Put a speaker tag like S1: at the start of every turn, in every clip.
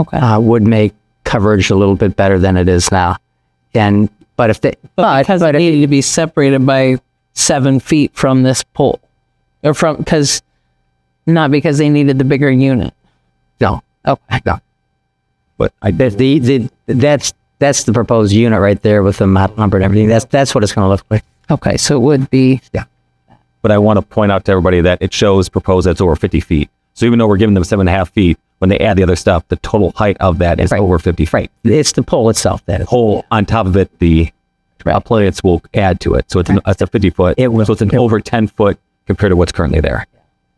S1: Okay.
S2: uh, would make coverage a little bit better than it is now. And but if they
S1: but because it needed to be separated by seven feet from this pole, or from because not because they needed the bigger unit.
S2: no
S1: Okay.
S2: no
S3: But I
S2: the, the, the that's that's the proposed unit right there with the model number and everything. That's that's what it's going to look like.
S1: Okay. So it would be
S3: but I want to point out to everybody that it shows proposed that's over 50 feet. So even though we're giving them seven and a half feet, when they add the other stuff, the total height of that is over 50 feet.
S2: It's the pole itself that is.
S3: Whole on top of it, the appliance will add to it. So it's, an, it's a 50 foot.
S2: It will-
S3: So it's an
S2: it will.
S3: over 10 foot compared to what's currently there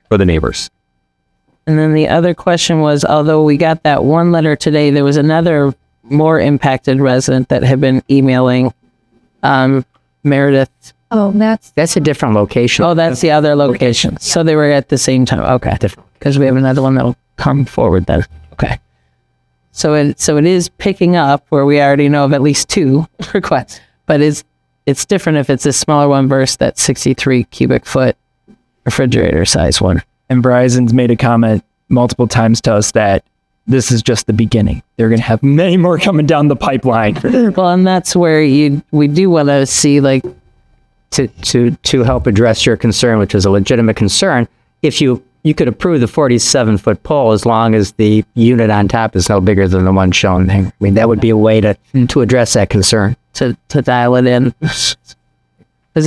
S3: for the neighbors.
S1: And then the other question was, although we got that one letter today, there was another more impacted resident that had been emailing um, Meredith.
S4: Oh, that's
S2: That's a different location.
S1: Oh, that's the other location. So they were at the same time. Okay, because we have another one that'll come forward then. Okay. So it so it is picking up where we already know of at least two requests, but it's it's different if it's a smaller one versus that sixty three cubic foot refrigerator size one.
S5: And Bryson's made a comment multiple times to us that this is just the beginning. They're going to have many more coming down the pipeline.
S1: Well, and that's where you we do want to see like
S2: to, to, to help address your concern, which is a legitimate concern, if you, you could approve the 47 foot pole as long as the unit on top is no bigger than the one shown. I mean, that would be a way to, to address that concern.
S1: to to dial it in because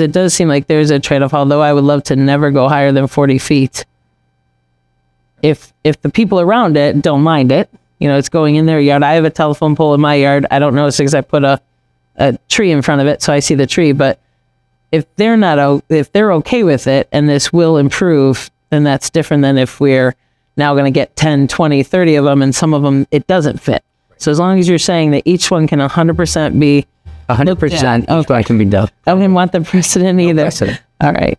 S1: it does seem like there's a trade-off although i would love to never go higher than 40 feet if if the people around it don't mind it you know it's going in their yard i have a telephone pole in my yard i don't notice because i put a a tree in front of it so i see the tree but if they're not o- if they're okay with it and this will improve then that's different than if we're now going to get 10 20 30 of them and some of them it doesn't fit so as long as you're saying that each one can 100% be
S2: 100%
S1: Yeah,
S2: each one can be done.
S1: I wouldn't want the precedent either.
S2: precedent.
S1: All right.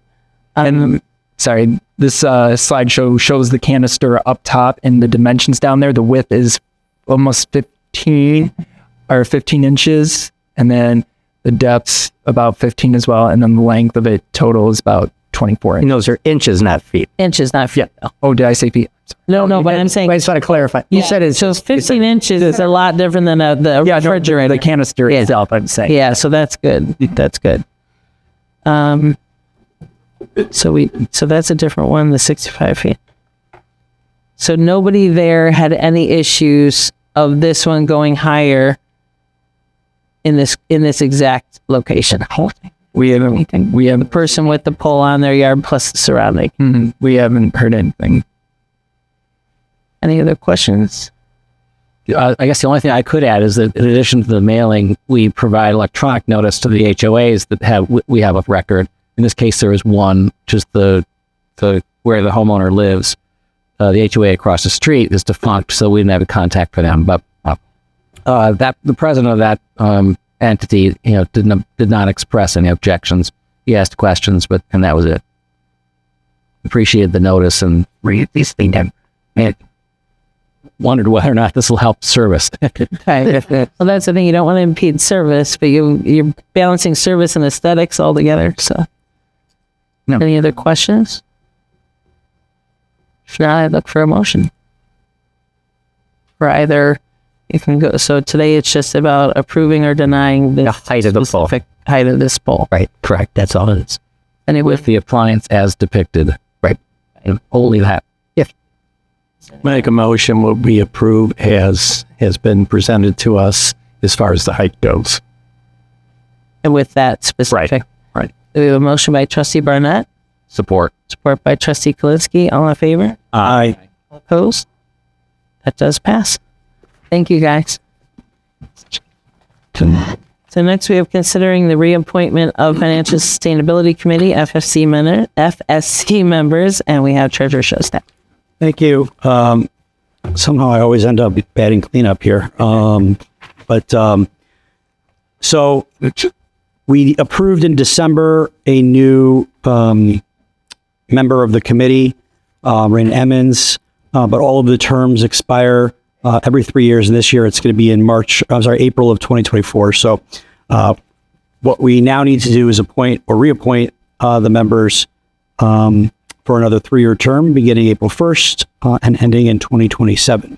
S5: and sorry, this uh, slideshow shows the canister up top and the dimensions down there. The width is almost 15 or 15 inches. And then the depth's about 15 as well. And then the length of it total is about 24
S2: And
S5: inches.
S2: those are inches, not feet.
S1: Inches, not feet. Yeah.
S5: Oh, did I say feet?
S1: No, no, but I'm saying
S2: I just want to clarify. You said it's
S1: so 15 inches is a lot different than a, the
S5: Yeah, no, the,
S1: refrigerator.
S5: the canister itself, I'm saying.
S1: yeah, so that's good. That's good. Um, so we so that's a different one, the 65 feet. So nobody there had any issues of this one going higher in this in this exact location.
S5: We haven't, we haven't,
S1: Person with the pole on their yard plus the surrounding.
S5: mhm, we haven't heard anything.
S1: Any other questions?
S6: uh, I guess the only thing I could add is that in addition to the mailing, we provide electronic notice to the HOAs that have w- we have a record. In this case, there is one, which is the the where the homeowner lives. Uh, the HOA across the street is defunct, so we didn't have a contact for them. But uh, uh, that the president of that um, entity, you know, did not did not express any objections. He asked questions, but and that was it. Appreciated the notice and
S2: read these things down.
S6: and wondered whether or not this will help service.
S1: Okay. well, that's the thing. You don't want to impede service, but you you're balancing service and aesthetics all together. So,
S2: No.
S1: any other questions? If not, I look for a motion. For either, you can go. So today it's just about approving or denying the
S2: The height of the pole.
S1: specific height of this pole.
S2: Right, correct. That's all it is.
S1: And it would
S6: with the appliance as depicted.
S2: Right.
S6: And only that.
S7: Make a motion what we approve as has been presented to us as far as the height goes.
S1: and with that specific.
S7: right.
S1: We have a motion by Trustee Barnett,
S3: Support.
S1: support by Trustee Kalinsky. All in favor?
S7: Aye.
S1: Opposed? That does pass. Thank you, guys. So next we have considering the reappointment of Financial Sustainability Committee, FFC, men- FSC members, and we have Treasurer Showstack.
S7: Thank you. Um, somehow I always end up batting cleanup here. Um, but um, so we approved in December a new um, member of the committee, uh, Rain Emmons, uh, but all of the terms expire uh, every three years. And this year it's going to be in March, I'm sorry, April of 2024. So uh, what we now need to do is appoint or reappoint uh, the members um, for another three-year term beginning April 1st uh, and ending in 2027.